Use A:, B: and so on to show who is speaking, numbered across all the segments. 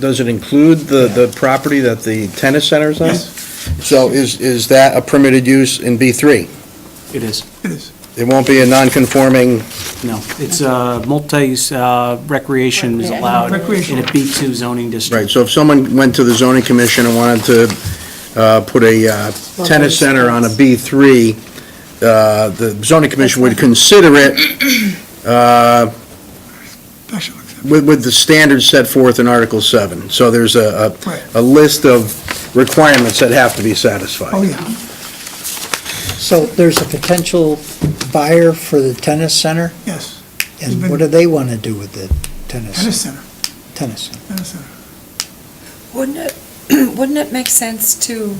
A: Does it include the, the property that the tennis center is on?
B: Yes.
A: So is, is that a permitted use in B3?
C: It is,
B: It is.
A: It won't be a non-conforming,
C: no. It's uh, multi-use uh, recreation is allowed in a
B: Recreational.
C: B2 zoning
A: right,
C: district.
A: so if someone went to the zoning commission and wanted to uh, put a uh, tennis center on a B3, uh, the zoning commission would consider it uh,
B: Special exception.
A: with, with the standards set forth in Article 7. So there's a,
B: Right.
A: a a list of requirements that have to be satisfied.
B: Oh, yeah,
D: So there's a potential buyer for the tennis center,
B: yes.
D: and what do they want to do with the
B: Tennis
D: tennis,
B: center,
D: tennis? center?
B: tennis center.
E: Wouldn't it, wouldn't it make sense to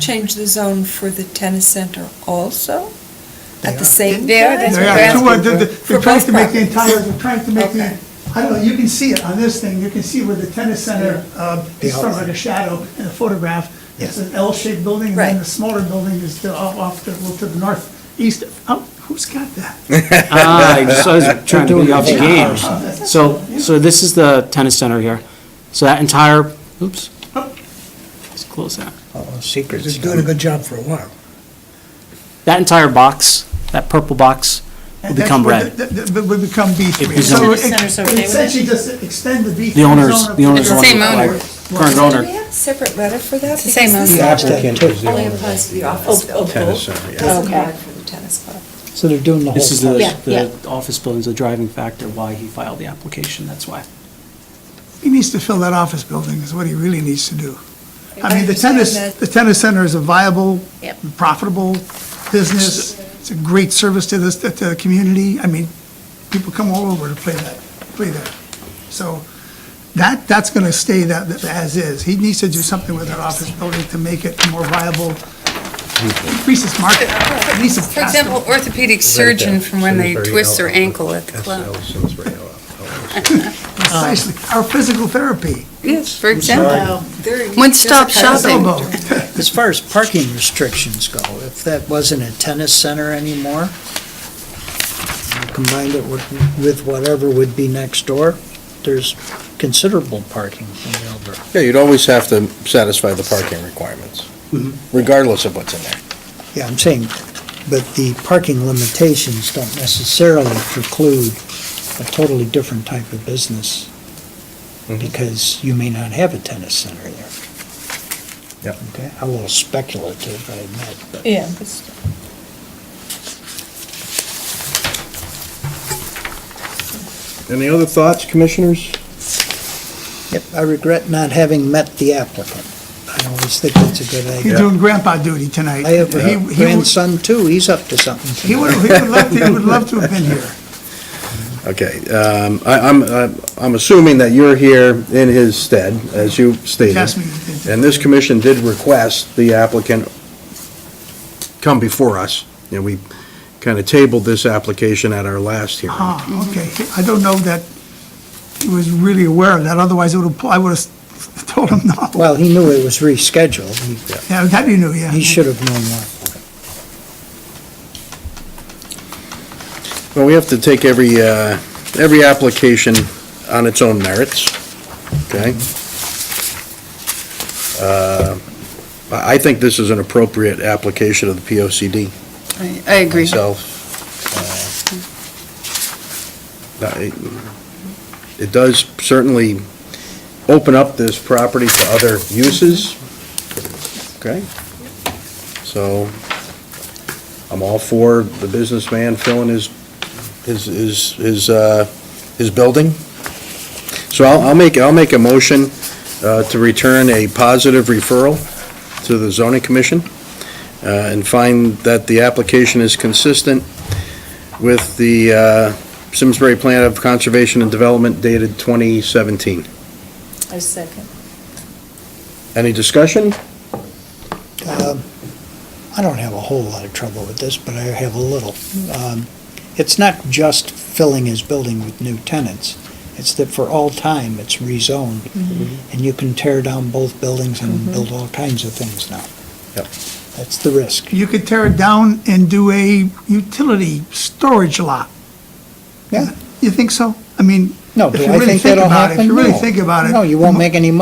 E: change the zone for the tennis center also? At the same?
F: Yeah, that's what
B: They
F: we're
B: are, too, uh,
F: asking
B: they're-
F: for.
B: They're
E: For
B: trying
E: both
B: to make the
E: properties.
B: entire, they're trying to make the,
E: Okay.
B: I don't know, you can see it on this thing, you can see where the tennis center uh, is sort of like a shadow in a photograph. It's an L-shaped building, and then
E: Right.
B: the smaller building is to- off off to, well, to the northeast. Oh, who's got that?
C: Ah, I just- I was trying to be off the game.
B: Oh, that's-
C: So, so this is the tennis center here. So that entire, oops. Let's close that.
D: Oh, secret
G: It's doing a good job for a while.
C: That entire box, that purple box, will
B: And that's
C: become
B: where
C: red.
B: the- the- the- Would become B3.
C: It'd
B: So
C: become-
B: it-
F: Center's
B: it
F: okay with it?
B: Essentially just extend the B3
C: The owners-
B: zone up
C: the
B: to
C: owners
F: want to Same owner.
C: Current
E: Do we
C: owner,
E: have a separate letter for that?
F: It's the same
E: Because
F: owner.
D: The
E: this
D: applicant is
E: Only applies
B: Oh,
E: to the office building.
A: Tennis center, yeah.
E: Doesn't
F: Okay.
E: apply for the tennis club.
D: So they're doing the whole.
C: this is the,
D: thing.
F: Yeah, yeah.
C: the office building's the driving factor why he filed the application, that's why.
B: He needs to fill that office building is what he really needs to do. I mean, the
E: understand
B: tennis,
E: that.
B: the tennis center is a viable,
F: Yep.
B: profitable business. It's a great service to this, to the community. I mean, people come all over to play that, play there. So that, that's going to stay that, that as is. He needs to do something with that office building to make it more viable, increase its market. It needs to
F: For
B: pass the-
F: example, orthopedic surgeon from when they twist their ankle at the club.
A: uh,
B: Precisely, our physical therapy.
F: Yes, for example.
E: There-
F: One stop
E: there's a kind of
F: shopping.
B: Elbow.
D: As far as parking restrictions go, if that wasn't a tennis center anymore, you combined it with with whatever would be next door, there's considerable parking available.
A: Yeah, you'd always have to satisfy the parking requirements, Mm-hmm. regardless of what's in there.
D: Yeah, I'm saying, but the parking limitations don't necessarily preclude a totally different type of business, because you may not have a tennis center there.
A: Yep.
D: Okay, a little speculative, I admit, but.
F: Yeah.
A: Any other thoughts, commissioners?
D: Yep, I regret not having met the applicant. I always think it's a good
B: He's
D: idea.
B: doing grandpa duty tonight.
D: I have uh,
B: He-
D: a
B: he-
D: grandson too, he's up to something.
B: He would, he would love to, he would love to have been here.
A: Okay, um, I, I'm, I'm- I'm assuming that you're here in his stead, as you stated.
B: Yes, we did.
A: And this commission did request the applicant come before us, and we kind of tabled this application at our last hearing.
B: Ah, okay. I don't know that he was really aware of that, otherwise it would, have- I would have told him no.
D: Well, he knew it was rescheduled, He-
B: Yeah, that you knew, yeah.
D: he should have known what.
A: Well, we have to take every, uh, every application on its own merits, okay? Uh, I I think this is an appropriate application of the POCD
F: I I agree.
A: myself. uh, uh, It it does certainly open up this property to other uses, okay? So I'm all for the businessman filling his, his, his, his, uh, his building. So I'll, I'll make, I'll make a motion uh, to return a positive referral to the zoning commission uh, and find that the application is consistent with the uh, Simsbury Plan of Conservation and Development dated 2017.
F: I second.
A: Any discussion?
D: Um, I don't have a whole lot of trouble with this, but I have a little. Um, It's not just filling his building with new tenants. It's that for all time, it's rezoned, and you can tear down both buildings and build all kinds of things now.
A: Yep.
D: That's the risk.
B: You could tear it down and do a utility storage lot.
D: Yeah.
B: You think so? I mean,
D: No,
B: If
D: do
B: you
D: I
B: really
D: think
B: think
D: that'll
B: about it,
D: happen?
B: if you really
D: No.
B: think about it,
D: No, you
B: the
D: won't
B: mo-
D: make any money.